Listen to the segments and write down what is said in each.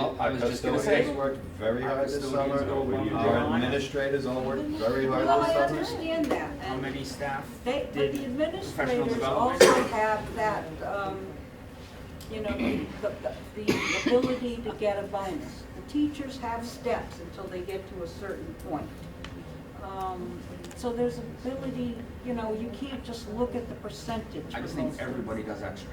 Our was just gonna say. custodians worked very Our hard this custodians summer, go above and our beyond. administrators all worked very hard Well, I this summer. understand that, How and many staff they, but did the professional administrators development? also have that, um, you know, the, the- the ability to get a bonus. The teachers have steps until they get to a certain point. Um, So there's ability, you know, you can't just look at the percentage. I just for think most of them. everybody does extra.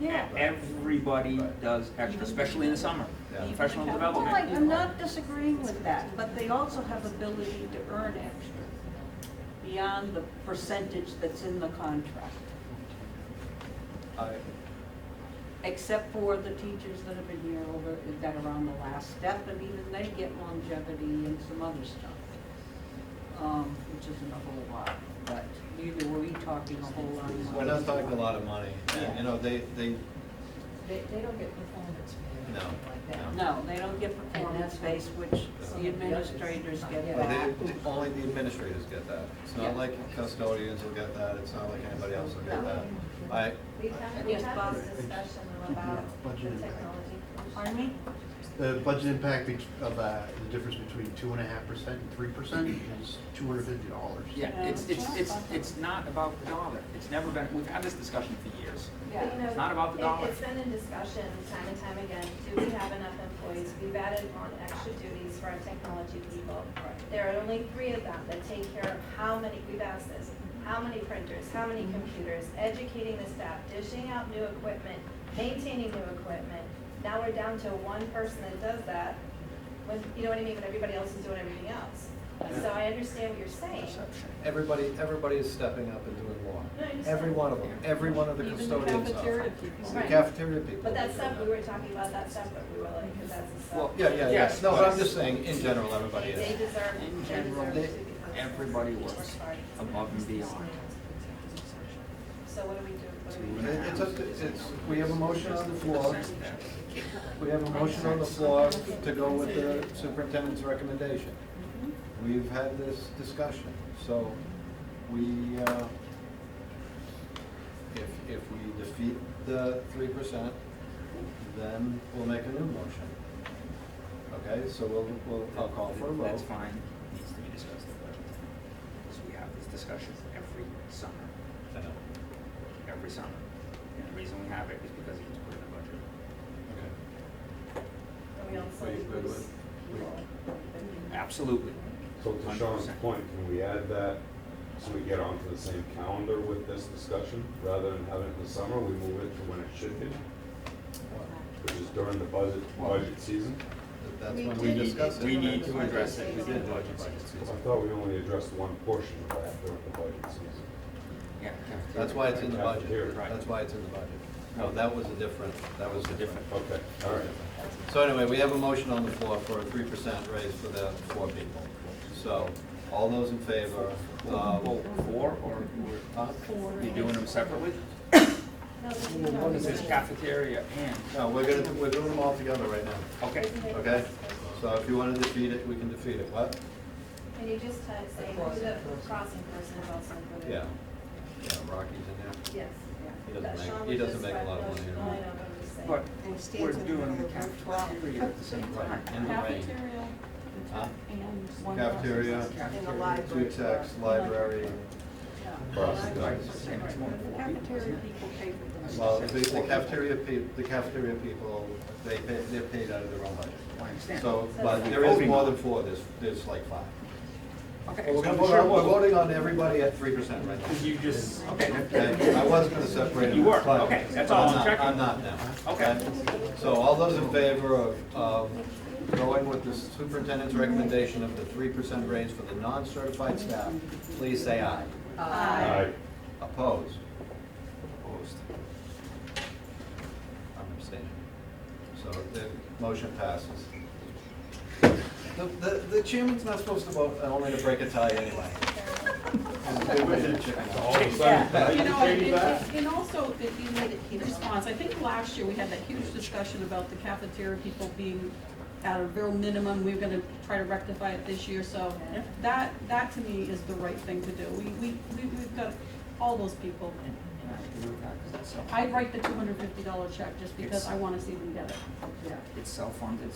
Yeah. Everybody does extra, especially in the summer. Yeah. Professional Well, I- I'm development. not disagreeing with that, but they also have ability to earn extra beyond the percentage that's in the contract, I- except for the teachers that have been here over, that are on the last step, and even they get longevity and some other stuff, um, which isn't a whole lot, but neither were we talking a whole lot. of We're not talking a lot of money, Yeah. and, you know, they, they, They, they don't get performance pay or No, anything like no. that. No, they don't get performance base, which the administrators get Yeah. well, back. they, they- only the administrators get that. It's Yeah. not like custodians will get that, it's not like anybody else will get that. Uh, I, We've had, we've Yes, had Bob. this discussion about the Budget impact. technology. Pardon me? The budget impact bet- of uh, the difference between two and a half percent and three percent is two hundred fifty dollars. Yeah, it's, it's, it's, it's not about the dollar. It's never been, we've had this discussion for years. But, you know, It's not about the it- dollar. It's been in discussion time and time again, do we have enough employees? We've added on extra duties for our technology people. There are only three of them that take care of how many, we've asked this, how many printers, how many computers, educating the staff, dishing out new equipment, maintaining new equipment. Now we're down to one person that does that, with, you know what I mean, but everybody else is doing everything else. So I understand what you're saying. Perception. everybody, everybody is stepping up and doing more. No, I understand. Every one of them, every one of the Even the custodians are. cafeteria people. The Right. cafeteria people. But that's separate, we were talking about that separate, we were like, because that's a Well, separate. Yeah, yeah, yeah, Yes, no, but I'm but- just saying, in general, everybody They is. they deserve, In they general, deserve to they- be. compensated. everybody Each works party. above and beyond. So what do we do? What do we It- do? It's, up to- it's, we have a motion on the floor, we have a motion on the floor to go with the superintendent's recommendation. We've had this discussion, so we, uh, if, if we defeat the three percent, then we'll make a new motion. Okay, so we'll, we'll, I'll call for a vote. That's fine, needs to be discussed at budget time. Because we have these discussions every summer, I know. every summer. And the reason we have it is because it's put in the budget. Okay. And we also Wait, wait, lose wait. people. Absolutely. So to Sean's 100%. point, can we add that so we get onto the same calendar with this discussion? Rather than having it in the summer, we move it to when it should be, which is during the budget, budget season? That- That's when We we need- discuss it. We need to address it. We did budget season. I thought we only addressed one portion of that during the budget season. Yeah. cafeteria. That's why it's in the budget, Right. that's why it's in the budget. No, that was a different, that was a different. Okay, all right. So anyway, we have a motion on the floor for a three percent raise for the four people. So, all those in favor, uh, Well, four, or huh? you're doing them separately? No, this is not- Because there's cafeteria and, No, we're gonna, we're doing them all together right now, okay. Isn't it- okay? So if you wanna defeat it, we can defeat it, what? Can you just uh, say who the crossing person is also included? Yeah, yeah, Rocky's in Yes, He yeah. doesn't That make- Sean he was doesn't just make a right, lot of no, money, you no, know. I know, but I'm just saying. But And it we're stands in doing the the room cafeteria at the same there, right, time. in the rain. Cafeteria Huh? and one. Cafeteria. person In the Cafeteria. Two library. techs, library, Crossing Right, guards. same, it's more than four people, Mm-hmm. Cafeteria isn't it? people pay for this. well, the the cafeteria peop the cafeteria people, they pay, they're paid out of their own budget. I understand. So, but there is more than four, there's, there's like five. Okay. Well, We're gonna so vote on- we're sure, voting on everybody at three percent right well, now. You just, okay, that- Okay, I was gonna separate them. You were, but- okay, that's but all, I'm not- checking. I'm not now. Okay. So all those in favor of, um, going with the superintendent's recommendation of the three percent raise for the non-certified staff, please say aye. Aye. Opposed? Opposed. I'm abstaining. So the motion passes. The, the, the chairman's not supposed to vote, uh, only to break a tie anyway. They wish it, chairman. You know, and- and, and also, if you made a key response, I think last year we had that huge discussion about the cafeteria people being at a real minimum, we were gonna try to rectify it this year, so Yeah. that, that to me is the right thing to do. We, we, we- we've got all those people. And I agree with that, 'cause that's self- I'd write the two hundred fifty dollar check just because I wanna see them get it. It's self-funded,